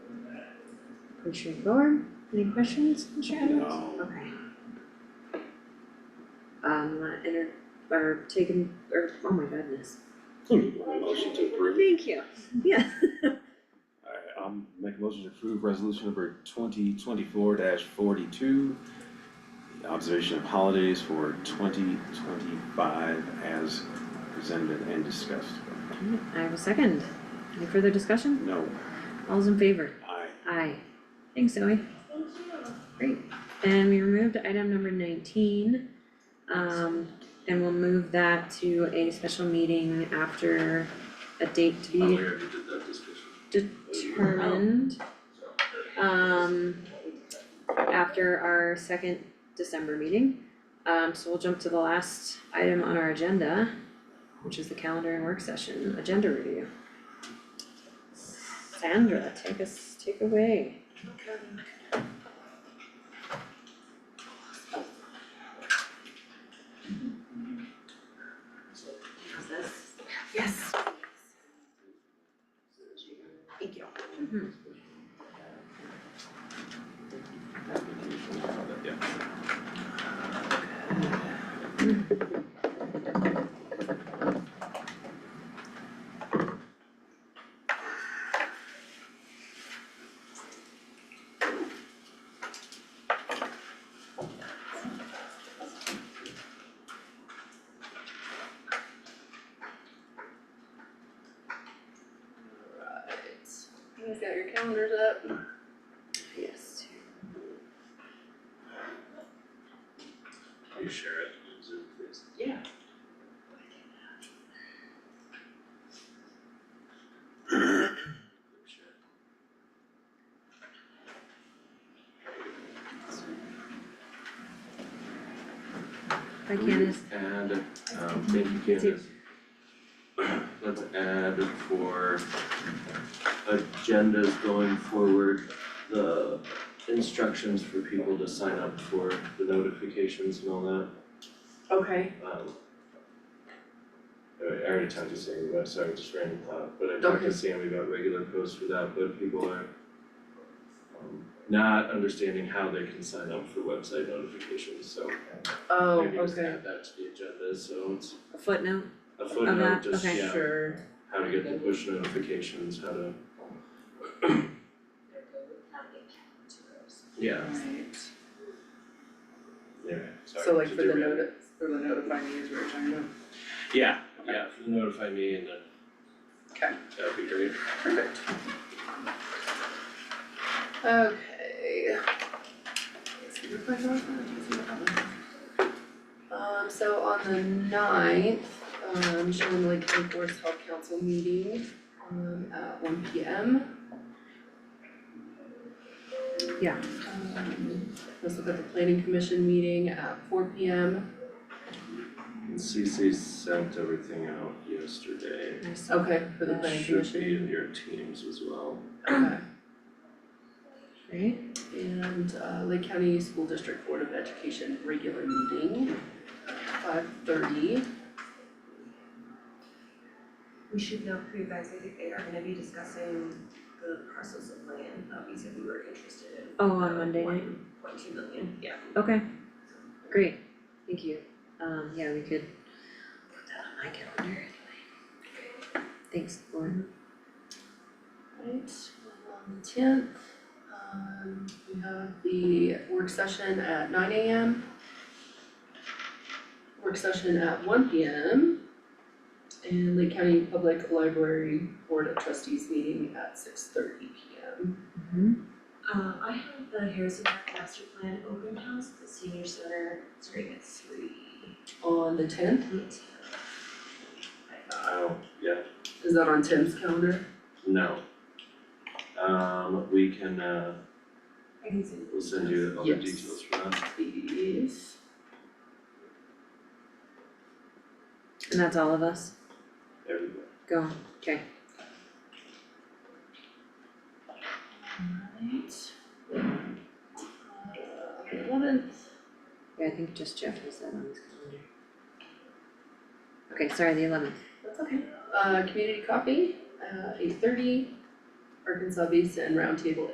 Commissioner Thorn, any questions, Commissioner Evans? No. Okay. Um, wanna enter, or take him, or, oh my goodness, Motion to approve. thank you, yeah. Alright, I'm make a motion to approve resolution number twenty twenty-four forty-two. the Observation of holidays for twenty twenty-five as presented and discussed. I have a second, any further discussion? No, All's in favor? I, Aye. Thanks, Zoe. Great, and we removed item number nineteen. Um, and we'll move that to a special meeting after a date to Oh, we be already did that discussion, determined. so. um, after our second December meeting. Um, so we'll jump to the last item on our agenda, which is the calendar and work session, agenda review. Sandra, take us, take away. Yes. Thank you. yeah. You guys got your calendars up? Yes. Can you share it on Zoom, please? Yeah. Hi Candace. Add, um, thank you, Candace. Let's add for agendas going forward, the instructions for people to sign up for the notifications and all that, Okay, um. I I already talked to Sammy about, it, sorry, just random thought, but I talked Okay. to Sammy about regular posts for that, but people are um, not understanding how they can sign up for website notifications, so oh, maybe just okay, add that to the agenda, so it's A Footnote. a that, footnote, just, Uh-huh, okay. yeah, sure. how to get the push notifications, how to. Yeah, Right. yeah, sorry. So like for the derail. noti- for the notify me is what you're talking about? Yeah, yeah, for the notify me and then. Okay. That'd be great. Perfect. Okay. Let's see, we're playing golf now, let's see what happens. Um, so on the ninth, um, Sherman Lake County Board of Health Council meeting, um, at one P M. Yeah. Um, let's look at the planning commission meeting at four P M, And CC sent everything out yesterday. Nice. okay, for the That planning Should commission. be in your teams as well. Okay. Right? And uh Lake County School District Board of Education regular meeting, uh, five thirty. We should know for you guys, I think they are gonna be discussing the parcels of land that we said we were interested in. Oh, on Monday night? Oh. Point two million, yeah. Okay. Great. Thank you. Um, yeah, we could put that on my calendar anyway. Thanks, Lauren. Right, on the tenth, um we have the work session at nine AM. Work session at one PM. And Lake County Public Library Board of Trustees meeting at six thirty PM. Uh, I have the Harrison Park Master Plan open house, at the senior center, starting at three. On the tenth, Oh, yeah, is that on Tim's calendar? no. Um, we can, uh, I can see. we'll send you all the Yes. details for that. Please. And that's all of us? Everybody. Go. Okay. Alright. Uh, eleventh, Yeah, I think just Jeff has that on his calendar. Okay, sorry, the eleventh. that's okay, uh, community coffee, uh, eight thirty, Arkansas Vista and Roundtable